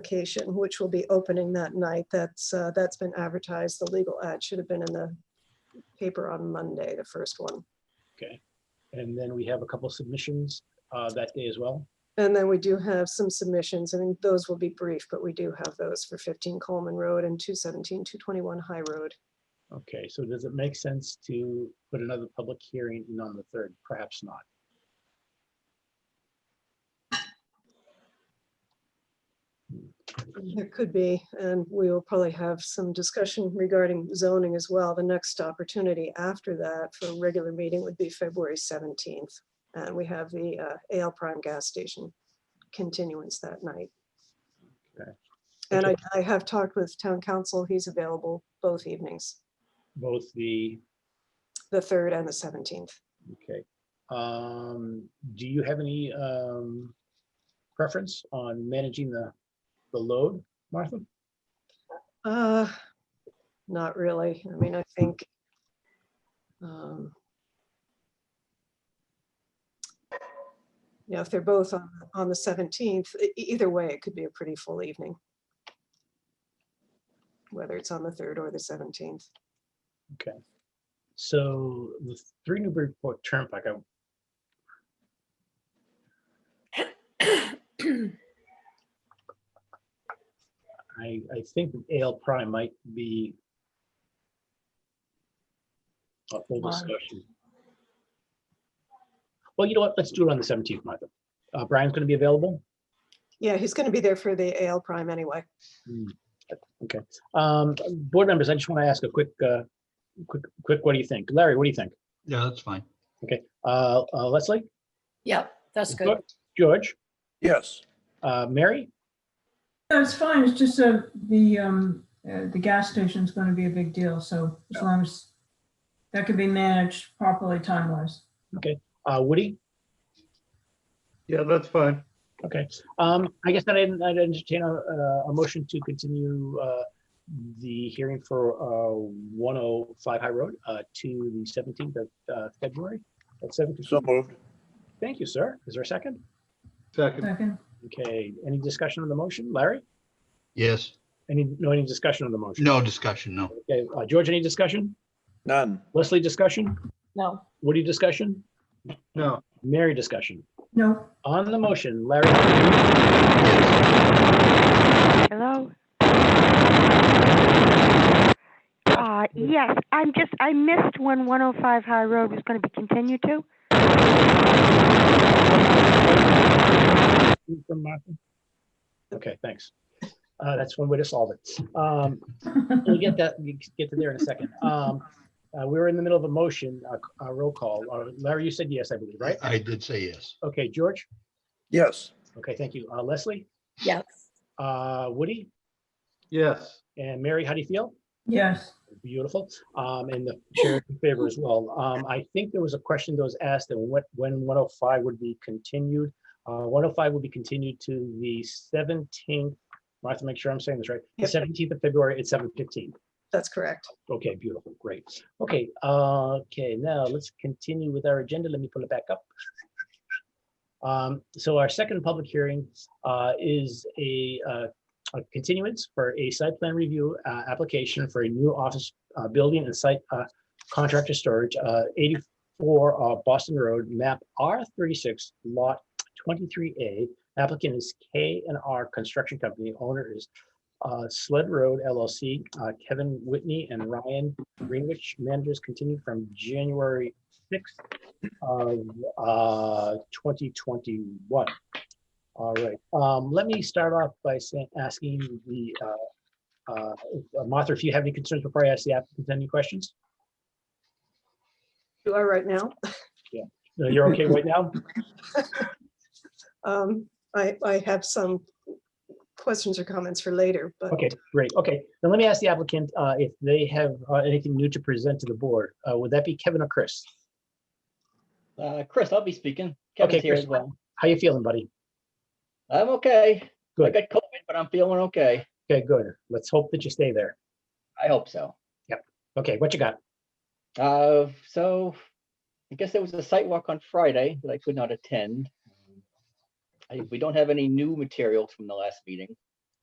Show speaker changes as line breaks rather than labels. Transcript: application, which will be opening that night. That's, uh, that's been advertised. The legal ad should have been in the paper on Monday, the first one.
And then we have a couple submissions uh, that day as well.
And then we do have some submissions. I mean, those will be brief, but we do have those for 15 Coleman Road and 217, 221 High Road.
Okay, so does it make sense to put another public hearing in on the third? Perhaps not.
There could be, and we will probably have some discussion regarding zoning as well. The next opportunity after that for a regular meeting would be February 17th. And we have the uh, AL Prime Gas Station continuance that night.
Okay.
And I, I have talked with town council. He's available both evenings,
Both the,
the 3rd and the 17th.
okay. Um, Do you have any um, preference on managing the, the load, Martha?
Uh, not really. I mean, I think. um You know, if they're both on, on the seventeenth, e-, either way, it could be a pretty full evening. Whether it's on the third or the seventeenth.
Okay. So the Three Newburyport Turnpike, I I, I think AL prime might be a full
Why?
discussion. Well, you know what? Let's do it on the seventeenth, Martha. Uh, Brian's gonna be available.
Yeah, he's gonna be there for the AL prime anyway.
Um, board members, I just want to ask a quick, uh, quick, quick, what do you think? Larry, what do you think?
Yeah, that's fine.
Okay, uh, uh, Leslie?
Yep, that's good.
Geor- George,
Yes,
uh, Mary?
No, It's fine. It's just uh the, um, uh, the gas station's gonna be a big deal, so as long as that can be managed properly time-wise.
Uh, Woody?
Yeah, that's fine.
Okay, um, I guess that I didn't, I'd entertain a, a- a motion to continue, uh, the hearing for, uh, one oh five High Road, uh, to the seventeenth of, uh, February at seven.
so moved.
Thank you, sir. Is there a second?
Second,
Second,
Okay, any discussion on the motion? Larry?
yes.
Any, no, any discussion on the motion?
No discussion, no.
Okay, uh, George, any discussion?
None.
Leslie, discussion?
No,
Woody, discussion?
No.
Mary, discussion?
no,
On the motion, Larry?
Hello? Uh, yes, I'm just, I missed when 105 High Road was going to be continued to.
From Martha? Okay, thanks. Uh, that's one way to solve it. Um, We'll get that, we can get to there in a second. Um, uh, we were in the middle of a motion, a, a roll call. Uh, Larry, you said yes, I believe, right?
I did say yes.
Okay, George?
Yes,
Okay, thank you. Uh, Leslie,
yes,
uh, Woody
Yes.
and Mary, how do you feel?
yes,
Beautiful. Um, and the chair is in favor as well. Um, I think there was a question that was asked and what, when one oh five would be continued. Uh, one oh five will be continued to the seventeenth. I have to make sure I'm saying this right. The
Yep.
seventeenth of February at seven fifteen.
That's correct.
Okay, beautiful, great. Okay, uh, okay, now let's continue with our agenda. Let me pull it back up. Um, so our second public hearing, uh, is a, uh, a continuance for a site plan review, uh, application for a new office, uh, building and site, uh, contractor storage, uh, eighty-four, uh, Boston Road, map R thirty-six, lot twenty-three A. Applicant is K and R Construction Company, owner is uh, Sled Road LLC, uh, Kevin Whitney and Ryan Greenwich, managers continued from January sixth of uh, twenty twenty-one. All right, um, let me start off by saying, asking the uh, uh, Martha, if you have any concerns before I ask the applicant any questions?
You are right now.
No, You're okay right now?
Um, I, I have some questions or comments for later, but
Okay, great. Okay, now let me ask the applicant uh, if they have uh, anything new to present to the board. Uh, Would that be Kevin or Chris?
Uh, Chris, I'll be speaking.
Okay,
Kevin's here
Chris.
as well.
How you feeling, buddy?
I'm okay. I
Good.
got COVID, but I'm feeling okay.
Okay, good. Let's hope that you stay there.
I hope so.
Okay, what you got?
Uh, so I guess there was a site walk on Friday that I could not attend. I, we don't have any new material from the last meeting.